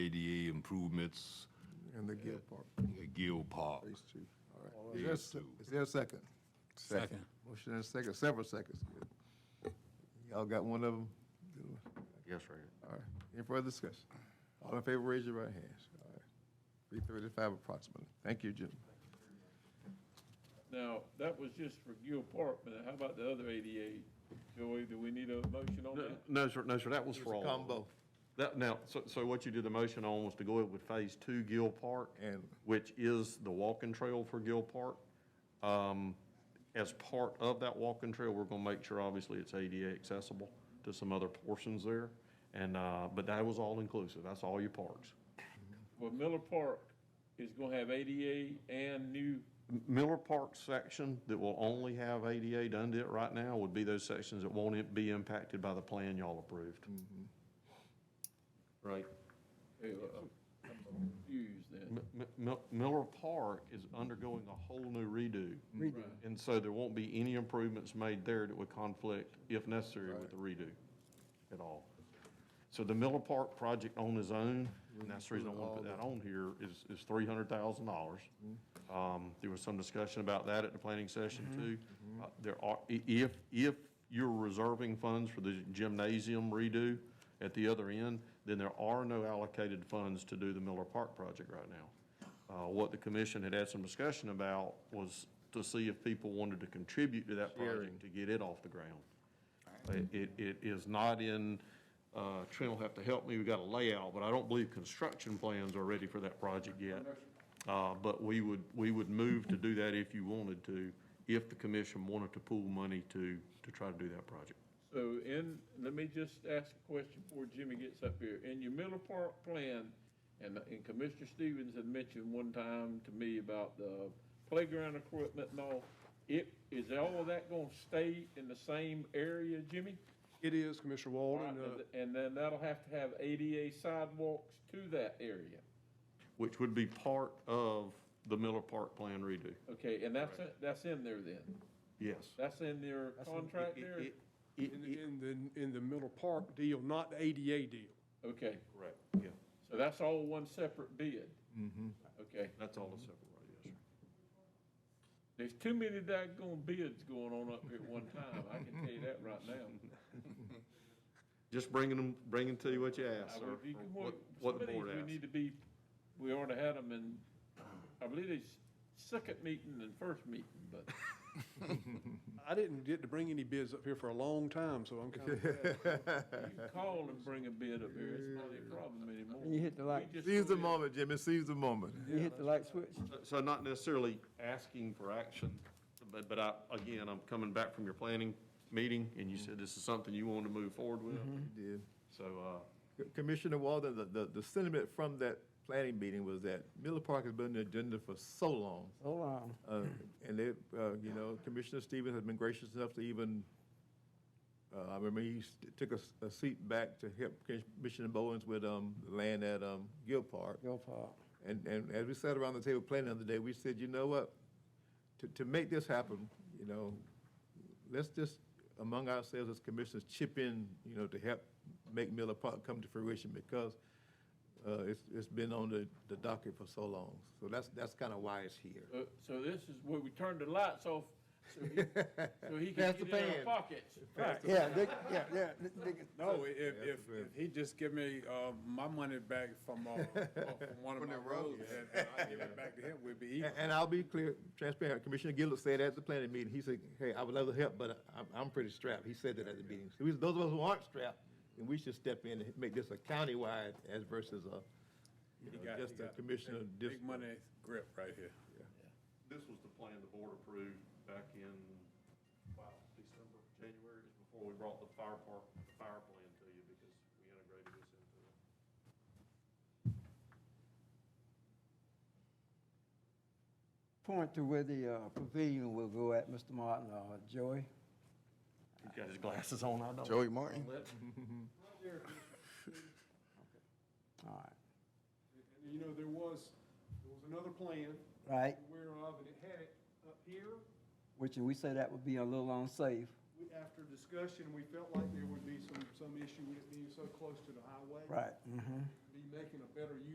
improvements And the Gil Park, at Gill Park. phase two. All right. Phase Is there a se- two. Is there a second? Second. Motion and a second, several seconds. Y'all got one of them? Yes, right. All right. Any further discussion? All in favor, raise your right hands. All right. Three thirty-five approximately. Thank you, Jim. Now, that was just for Gil Park, but how about the other 88? Joey, do we need a motion on No, that? no, sir, no, sir, that was for all. of them. Combo. That, now, so, so what you did the motion on was to go with Phase Two Gill Park. And- Which is the walking trail for Gill Park. Um, as part of that walking trail, we're gonna make sure, obviously, it's ADA accessible to some other portions there. And, uh, but that was all inclusive, that's all your parks. Well, Miller Park is gonna have ADA and new, M- Miller Park section that will only have ADA done to it right now would be those sections that won't i- be impacted by the plan y'all approved. Right. uh, I'm confused then. M- M- Mil- Miller Park is undergoing a whole new redo. Mm-hmm. Redo. And so there won't be any improvements made there that would conflict, if necessary, with the redo at all. So the Miller Park project on its own, and that's the reason I want to put that on here, is, is three hundred thousand dollars. Um, there was some discussion about that at the planning session too. Uh, There are, i- if, if you're reserving funds for the gymnasium redo at the other end, then there are no allocated funds to do the Miller Park project right now. Uh, what the commission had had some discussion about was to see if people wanted to contribute to that Sharing. project to get it off the ground. Uh, Mm-hmm. It, it- it is not in, uh, Trent will have to help me, we've got a layout, but I don't believe construction plans are ready for that project yet. Uh, But we would, we would move to do that if you wanted to, if the commission wanted to pool money to, to try to do that project. So in, let me just ask a question before Jimmy gets up here. In your Miller Park plan, and, and Commissioner Stevens had mentioned one time to me about the playground equipment and all, it, is all of that gonna stay in the same area, Jimmy? It is, Commissioner Walden. uh, And then that'll have to have ADA sidewalks to that area. Which would be part of the Miller Park plan redo, Okay, and that's, that's in there then? yes. That's in their contract there? It- it- In, it- in the, in the Miller Park deal, not the ADA deal. Okay, Correct, yeah, so that's all one separate bid? Mm-hmm. Okay, that's all the separate, right, yes, sir. there's too many daggone bids going on up here at one time, I can tell you that right now. Just bringing them, bringing to you what you I asked, sir. would- you can what- work- what Some the of these board we asked. need to be, we already had them in, I believe it's second meeting and first meeting, but I didn't get to bring any bids up here for a long time, so I'm kind of, you can call and bring a bid up here, it's not a problem anymore. You hit the light. We just Seize go the in. moment, Jimmy, seize the moment. Mm-hmm. You hit the light switch? So not necessarily asking for action, but, but I, again, I'm coming back from your planning meeting, and you said this is something you wanted to move forward with. Did. So, uh, Commissioner Walden, the- the, the sentiment from that planning meeting was that Miller Park has been on the agenda for so long. Hold on. Uh, And they, uh, you know, Commissioner Stevens has been gracious enough to even, uh, I remember he s- took a, s- a seat back to help Commissioner Bowens with, um, land at, um, Gill Park. Go Park. And, and as we sat around the table planning the other day, we said, you know what? To, to make this happen, you know, let's just, among ourselves as commissioners, chip in, you know, to help make Miller Park come to fruition because, uh, it's, it's been on the, the docket for so long. So that's, that's kind of why it's here. Uh, So this is where we turn the lights off, so he, so he can Pass the get in our pan. pockets. Yeah, they, yeah, yeah. they- they- No, if, if, if he just give me, uh, my money back from, uh, from one of my roads, and and I give it back to him, we'd be even. And, and I'll be clear, transparent, Commissioner Gillard said at the planning meeting, he said, hey, I would love to help, but I'm, I'm pretty strapped. He said that at the meeting. So we- those of us who aren't strapped, then we should step in and make this a countywide as versus a, you He know, got- just he a got commissioner. big- dis- Big money grip right here. this was the plan the board approved back in, wow, December, January, is before we brought the fire park, fire plan to you, because we integrated this into it. Point to where the uh, pavilion will go at, Mr. Martin, or Joey. He's got his glasses on, I don't. Joey Martin. All right. and you know, there was, there was another plan. Right. Aware of, and it had it up here. Which we say that would be a little unsafe. We- After discussion, we felt like there would be some, some issue with it being so close to the highway. Right, mhm. Be making a better use